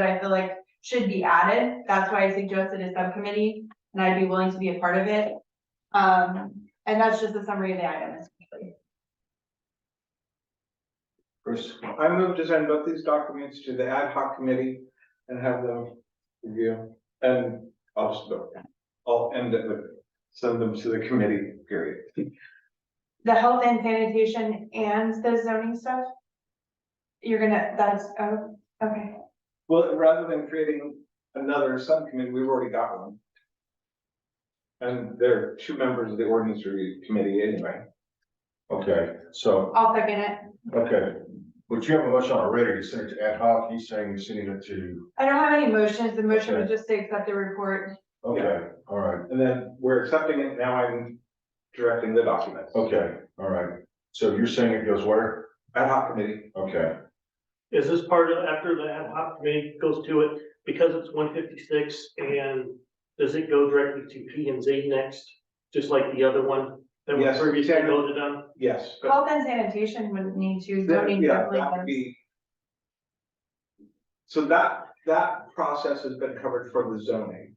that I feel like should be added. That's why I suggested a subcommittee, and I'd be willing to be a part of it. Um, and that's just a summary of the items. Bruce, I move to send both these documents to the ad hoc committee and have them review and I'll just go. I'll end it with, send them to the committee, period. The health and sanitation and the zoning stuff? You're gonna, that's, oh, okay, Well, rather than creating another subcommittee, we've already got one. And they're two members of the ordinance review committee anyway. okay, so, I'll second it. okay, but you have a motion already, you sent it to ad hoc, he's saying you're sending it to, I don't have any motions. The motion was just to accept the report. okay, all right, And then we're accepting it, now I'm directing the documents. okay, all right. So you're saying it goes where? Ad hoc committee, Okay, Is this part of, after the ad hoc committee goes to it, because it's one fifty-six, and does it go directly to P and Z next? Just like the other one that was Yes, previously Kevin. voted on? yes. but- Health and sanitation wouldn't need to, zoning Yeah, definitely that would does. be. So that, that process has been covered for the zoning.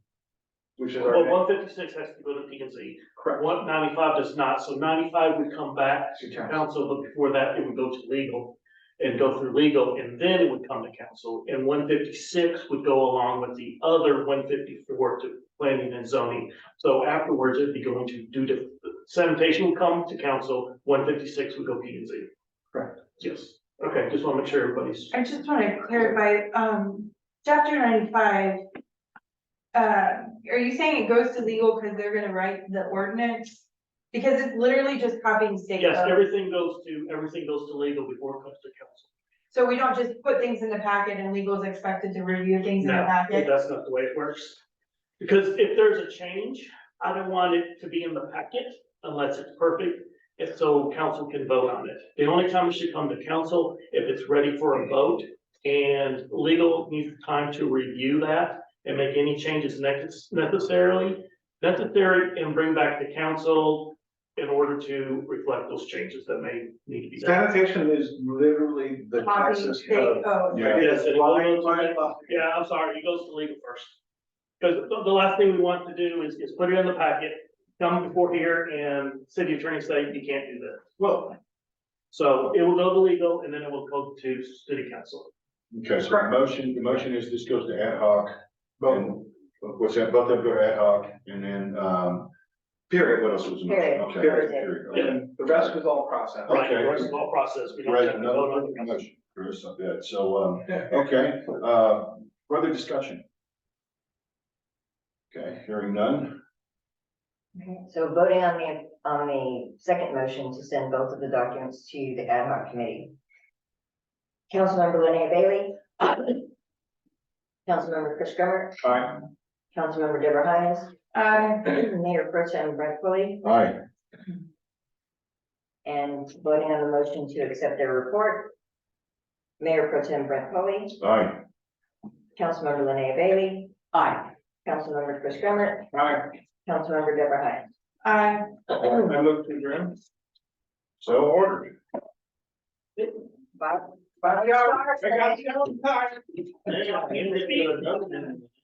Which is Well, our. one fifty-six has to go to P and Z, Correct. one ninety-five does not, so ninety-five would come back to to town. council, but before that, it would go to legal. And go through legal, and then it would come to council, and one fifty-six would go along with the other one fifty-four to planning and zoning. So afterwards, it'd be going to do the sanitation would come to council, one fifty-six would go P and Z. Correct. Yes, okay, just want to make sure everybody's. I just wanna clarify, um, chapter ninety-five. Uh, are you saying it goes to legal because they're gonna write the ordinance? Because it's literally just copying state Yes, law. everything goes to, everything goes to legal before it comes to council. So we don't just put things in the packet and legal's expected to review things in the No, packet. That's not the way it works. Because if there's a change, I don't want it to be in the packet unless it's perfect. If so, council can vote on it. The only time it should come to council if it's ready for a vote. And legal needs time to review that and make any changes necess- necessarily, necessary and bring back to council in order to reflect those changes that may need to be done. Sanitation is literally the Copying Texas state code. law. yeah, It is Yes, it line goes- by line. Yeah, I'm sorry, it goes to legal first. Because the, the last thing we want to do is, is put it in the packet, come before here and city attorney say, you can't do that. Well, So it will go to legal and then it will go to city council. okay, so the motion, the motion is this goes to ad hoc, boom, what's that, both of them go to ad hoc, and then, um, period, what else was? the motion? Period. Okay, Period. period, okay. and the rest is all process. Right, Okay. the rest is all process. We don't Right, have to another vote on it. motion, Chris, I bet, so, um, okay, uh, further discussion? Okay, hearing none, So voting on the, on the second motion to send both of the documents to the ad hoc committee. Councilmember Linnea Bailey. Councilmember Chris Grummer, aye, Councilmember Deborah Hines, Uh, Mayor Pro Tem Brett Foley, aye, and voting on the motion to accept their report. Mayor Pro Tem Brett Foley, aye, Councilmember Linnea Bailey. Aye. Councilmember Chris Grummer, All right, Councilmember Deborah Hines. I, I look to adjourn. so ordered. Bob, Bob, you're- I got you. Yeah, and it's-